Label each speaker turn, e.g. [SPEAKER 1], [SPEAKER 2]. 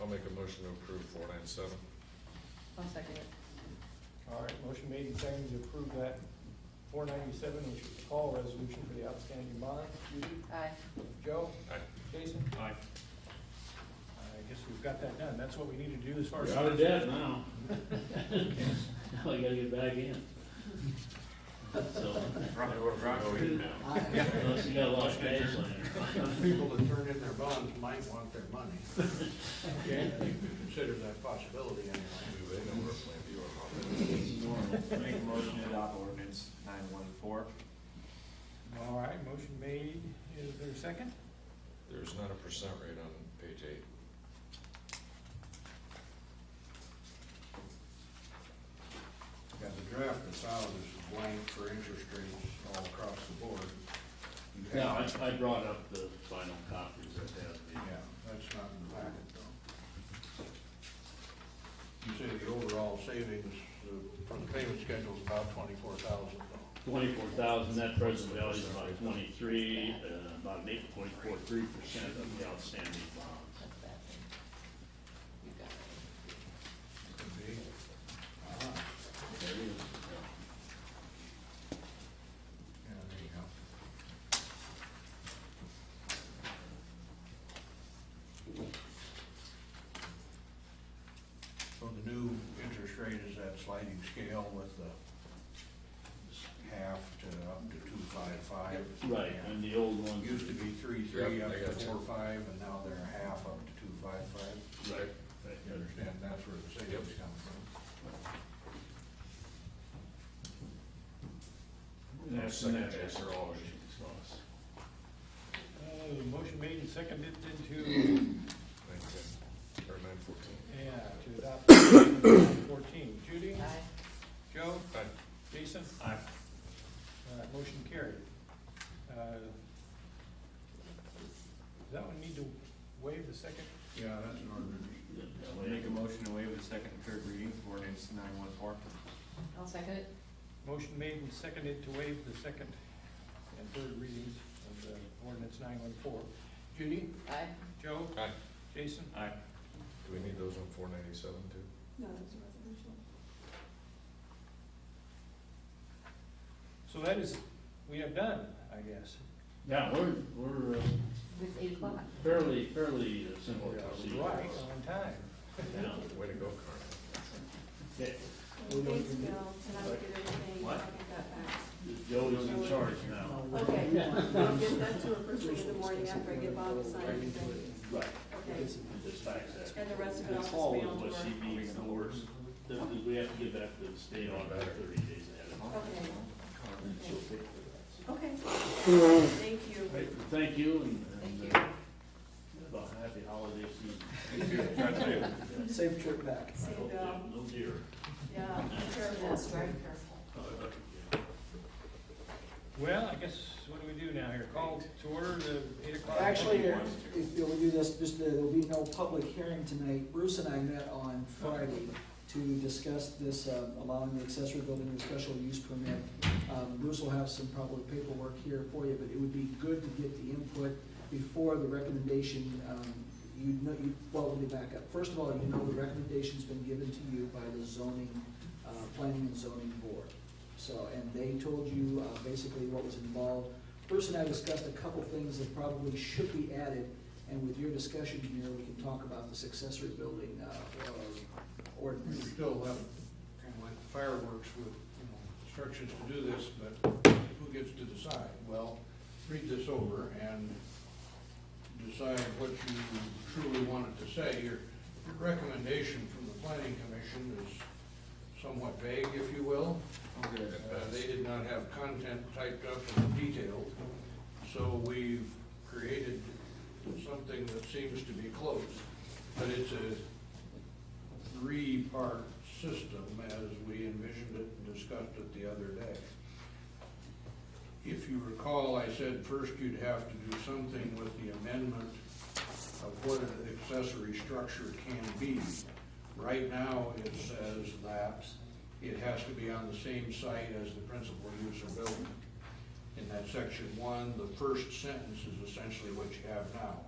[SPEAKER 1] I'll make a motion to approve four nine seven.
[SPEAKER 2] I'll second it.
[SPEAKER 3] All right, motion made and seconded to approve that four ninety-seven, which is the call resolution for the outstanding bond. Judy?
[SPEAKER 2] Aye.
[SPEAKER 3] Joe?
[SPEAKER 1] Aye.
[SPEAKER 3] Jason?
[SPEAKER 4] Aye.
[SPEAKER 3] I guess we've got that done. That's what we need to do as far as.
[SPEAKER 5] You're out of debt now. Now I gotta get back in. So,
[SPEAKER 4] Rock, rock,
[SPEAKER 5] unless you got a lot of cash
[SPEAKER 6] People that turn in their bonds might want their money.
[SPEAKER 5] Okay.
[SPEAKER 6] Consider that possibility anyway.
[SPEAKER 1] Do they know where Plan B or
[SPEAKER 4] Make a motion to adopt ordinance nine one four.
[SPEAKER 3] All right, motion made. Is there a second?
[SPEAKER 1] There's not a percent rate on page eight.
[SPEAKER 6] Got the draft that's out is blank for interest rates all across the board. You have-
[SPEAKER 5] No, I, I brought up the final copies that have
[SPEAKER 6] Yeah,
[SPEAKER 5] the,
[SPEAKER 6] that's not in the packet though. You say the overall savings uh, from the payment schedule is about twenty-four thousand though.
[SPEAKER 5] twenty-four thousand, that present value is about twenty-three, uh, about eight point four three percent of the outstanding bonds.
[SPEAKER 2] That's that thing. You got it.
[SPEAKER 6] Could be. Uh-huh.
[SPEAKER 5] There it is. Yeah.
[SPEAKER 6] Yeah, there you go. So the new interest rate is that sliding scale with the half to up to two five five.
[SPEAKER 5] Right, and the old
[SPEAKER 6] It Used
[SPEAKER 5] ones,
[SPEAKER 6] to be three three
[SPEAKER 1] Yep,
[SPEAKER 6] up
[SPEAKER 1] I
[SPEAKER 6] to
[SPEAKER 1] got you.
[SPEAKER 6] four five, and now they're a half up to two five five.
[SPEAKER 5] right, right,
[SPEAKER 6] You understand, that's where the savings come from.
[SPEAKER 5] And that's, and that's after all
[SPEAKER 1] Second.
[SPEAKER 5] the costs.
[SPEAKER 3] Uh, motion made and seconded into,
[SPEAKER 1] Nine ten, or nine fourteen.
[SPEAKER 3] yeah, to adopt resolution fourteen. Judy?
[SPEAKER 2] Aye.
[SPEAKER 3] Joe?
[SPEAKER 1] Aye.
[SPEAKER 3] Jason?
[SPEAKER 4] Aye.
[SPEAKER 3] All right, motion carried. Uh, Does that one need to waive the second?
[SPEAKER 6] Yeah, that's an ordinance.
[SPEAKER 5] Yeah, that way I
[SPEAKER 4] Make a
[SPEAKER 5] can-
[SPEAKER 4] motion to waive the second and third reading of ordinance nine one four.
[SPEAKER 2] I'll second it.
[SPEAKER 3] Motion made and seconded to waive the second and third readings of the ordinance nine one four. Judy?
[SPEAKER 2] Aye.
[SPEAKER 3] Joe?
[SPEAKER 1] Aye.
[SPEAKER 3] Jason?
[SPEAKER 4] Aye.
[SPEAKER 1] Do we need those on four ninety-seven too?
[SPEAKER 7] No, it was a resolution.
[SPEAKER 3] So that is, we have done, I guess.
[SPEAKER 5] Yeah, we're, we're, uh,
[SPEAKER 2] It's eight o'clock.
[SPEAKER 5] Fairly, fairly uh, simple
[SPEAKER 3] We're
[SPEAKER 5] procedure.
[SPEAKER 3] Right, on time.
[SPEAKER 5] Yeah.
[SPEAKER 1] Way to go, Carl.
[SPEAKER 5] Okay,
[SPEAKER 7] Thanks, Bill, and I'll get everything, I'll
[SPEAKER 5] What?
[SPEAKER 7] get that back.
[SPEAKER 5] Joe's in charge now.
[SPEAKER 7] Okay, I'll get that to her first thing in the morning after I get Bob to sign everything.
[SPEAKER 5] Right.
[SPEAKER 7] Okay,
[SPEAKER 5] Just fax that.
[SPEAKER 7] and the rest of it I'll
[SPEAKER 5] This
[SPEAKER 7] just
[SPEAKER 5] fall
[SPEAKER 7] mail
[SPEAKER 5] is
[SPEAKER 7] to
[SPEAKER 5] what
[SPEAKER 7] her.
[SPEAKER 5] she needs the worst. Th- th- we have to get back to the state on about thirty days ahead of
[SPEAKER 7] Okay,
[SPEAKER 5] She'll pay for
[SPEAKER 7] okay. Thank you.
[SPEAKER 5] that. Right, Thank you and, and,
[SPEAKER 7] Thank
[SPEAKER 5] uh, about happy holiday season.
[SPEAKER 3] Safe trip back.
[SPEAKER 5] I
[SPEAKER 7] See you,
[SPEAKER 5] hope
[SPEAKER 7] Bill.
[SPEAKER 5] that- No deer.
[SPEAKER 7] uh, Yeah, be careful. That's very careful.
[SPEAKER 3] Well, I guess, what do we do now here? Call to order the eight o'clock.
[SPEAKER 8] Actually, if you'll do this, just, uh, there'll be no public hearing tonight. Bruce and I met on Friday to discuss this, uh, allowing the accessory building a special use permit. Um, Bruce will have some probably paperwork here for you, but it would be good to get the input before the recommendation, um, you know, you, well, let me back up. First of all, you know the recommendation's been given to you by the zoning, uh, planning and zoning board. So, and they told you, uh, basically what was involved. Bruce and I discussed a couple things that probably should be added, and with your discussion here, we can talk about this accessory building, uh, or-
[SPEAKER 6] We
[SPEAKER 8] ordinance.
[SPEAKER 6] still have, kind of like fireworks with, you know, instructions to do this, but who gets to decide? Well, read this over and decide what you truly wanted to say. Your recommendation from the planning commission is somewhat vague, if you will.
[SPEAKER 1] Okay.
[SPEAKER 6] Uh, They did not have content typed up and detailed, so we've created something that seems to be close. But it's a three-part system as we envisioned it and discussed it the other day. If you recall, I said first you'd have to do something with the amendment of what an accessory structure can be. Right now, it says that it has to be on the same site as the principal use or building. In that section one, the first sentence is essentially what you have now.